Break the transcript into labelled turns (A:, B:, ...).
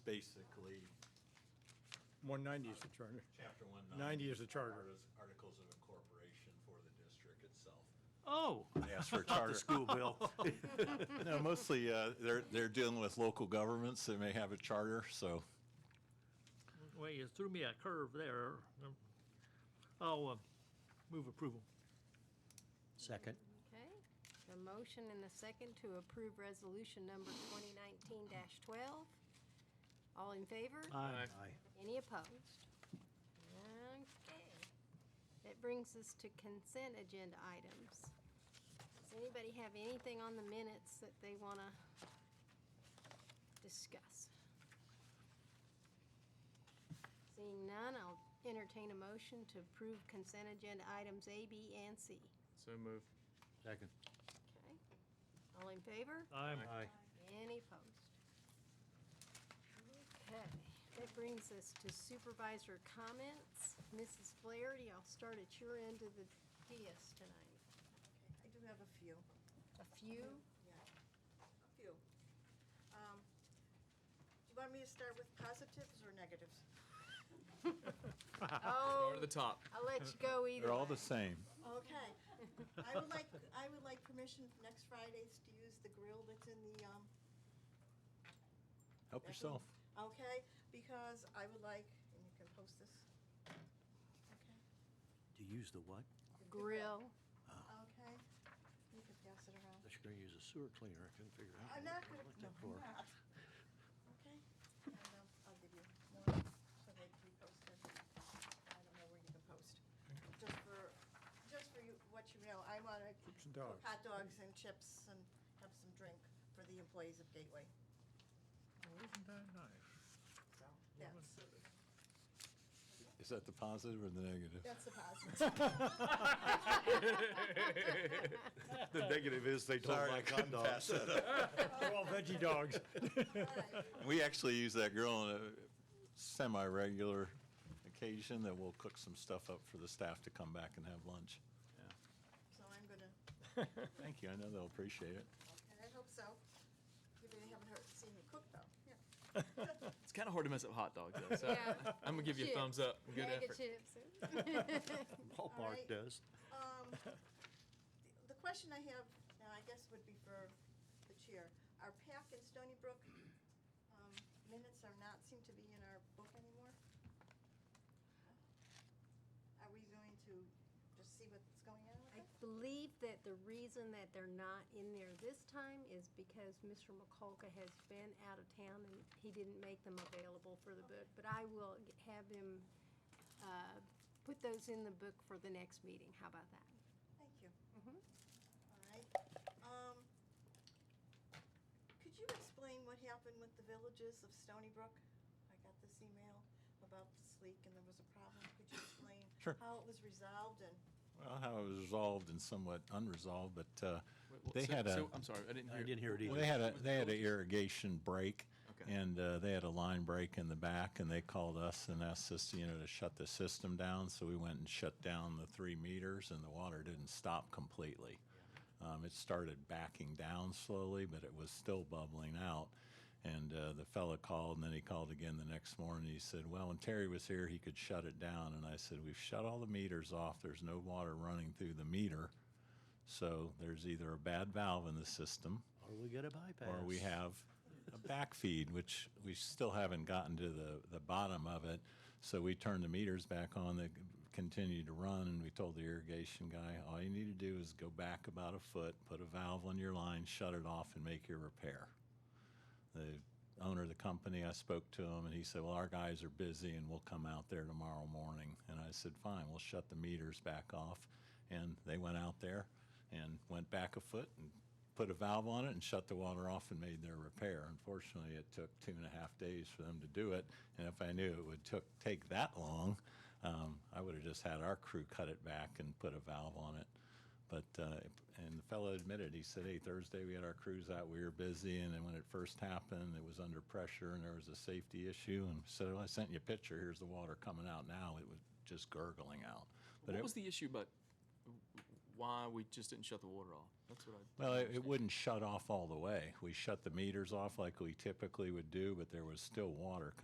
A: 190 is the charter.
B: Chapter 190.
A: 90 is the charter.
B: Articles- Articles of incorporation for the district itself.
C: Oh,
B: Yes, for charter.
C: school bill.
B: No, mostly, uh, they're, they're dealing with local governments that may have a charter, so.
C: Well, you threw me a curve there. Um, I'll uh, move approval.
D: Second.
E: Okay, the motion and the second to approve resolution number 2019-12. All in favor?
C: Aye.
D: Aye.
E: Any opposed? Okay. That brings us to consent agenda items. Does anybody have anything on the minutes that they want to discuss? Seeing none, I'll entertain a motion to approve consent agenda items A, B, and C.
F: So move.
D: Second.
E: Okay. All in favor?
C: Aye.
E: Any opposed? Okay, that brings us to supervisor comments. Mrs. Flaherty, I'll start at your end of the dais tonight.
G: I do have a few,
E: A few?
G: yeah, a few. Um, Do you want me to start with positives or negatives?
F: Go to
E: Oh,
F: the top.
E: I'll let you go either
B: They're all the
E: way.
B: same.
G: Okay. I would like, I would like permission next Fridays to use the grill that's in the, um,
B: Help
G: That
B: yourself.
G: one, Okay, because I would like, and you can post this. Okay,
D: To use the what?
E: Grill.
G: okay. You can pass it around.
D: I should go use a sewer cleaner. I couldn't figure out.
G: I'm
D: what
G: not
D: the
G: gonna,
D: hell
G: no,
D: that for.
G: I'm not. Okay, and I'll, I'll give you one, so they can post it. I don't know where you can post. Just for, just for you, what you know, I wanna
A: Chips and
G: cook
A: dogs.
G: hot dogs and chips and have some drink for the employees of Gateway.
A: Isn't that nice?
G: That's,
B: Is that the positive or the negative?
G: that's the positive.
H: The negative is they don't
B: Sorry, I
H: like hot
B: couldn't
H: dogs.
B: pass that up.
A: They're all veggie dogs.
G: All right.
B: We actually use that grill on a semi-regular occasion that we'll cook some stuff up for the staff to come back and have lunch.
G: So I'm gonna,
B: Thank you, I know they'll appreciate it.
G: and I hope so. You really haven't heard, seen me cook though, yeah.
F: It's kind of hard to mess up hot dogs, though. So
E: Yeah.
F: I'm gonna give you a
E: Chips.
F: thumbs up. Good effort.
E: Negatives.
D: Hallmark
G: right.
D: does.
G: Um, the- The question I have, now I guess would be for the chair. Our PAC and Stony Brook um, minutes are not, seem to be in our book anymore. Are we going to just see what's going on with
E: I
G: it?
E: believe that the reason that they're not in there this time is because Mr. McColka has been out of town and he didn't make them available for the book. But I will g- have him uh, put those in the book for the next meeting. How about that?
G: Thank you.
E: Mhm.
G: All right. Um, Could you explain what happened with the villages of Stony Brook? I got this email about this leak and there was a problem. Could you explain
B: Sure.
G: how it was resolved and
B: Well, how it was resolved and somewhat unresolved, but uh,
F: Wait, well,
B: they
F: so-
B: had a.
F: so- I'm sorry, I didn't hear.
D: I didn't hear it
B: Well,
D: either.
B: they had a, they had an irrigation break.
F: Okay.
B: And uh, they had a line break in the back, and they called us and asked us, you know, to shut the system down. So we went and shut down the three meters, and the water didn't stop completely. Um, it started backing down slowly, but it was still bubbling out. And uh, the fella called, and then he called again the next morning. He said, "Well, when Terry was here, he could shut it down." And I said, "We've shut all the meters off. There's no water running through the meter." So there's either a bad valve in the system,
D: Or we get a bypass.
B: or we have a backfeed, which we still haven't gotten to the, the bottom of it. So we turned the meters back on, they continued to run, and we told the irrigation guy, all you need to do is go back about a foot, put a valve on your line, shut it off, and make your repair. The owner of the company, I spoke to him, and he said, well, our guys are busy, and we'll come out there tomorrow morning. And I said, fine, we'll shut the meters back off. And they went out there and went back a foot and put a valve on it and shut the water off and made their repair. Unfortunately, it took two and a half days for them to do it. And if I knew it would took, take that long, um, I would have just had our crew cut it back and put a valve on it. But, uh, and the fellow admitted, he said, hey, Thursday we had our crews out, we were busy. And then when it first happened, it was under pressure and there was a safety issue. And so I sent you a picture, here's the water coming out now. It was just gurgling out. But
F: What
B: it
F: was the issue about why we just didn't shut the water off? That's what I.
B: Well, it, it wouldn't shut off all the way. We shut the meters off like we typically would do, but there was still water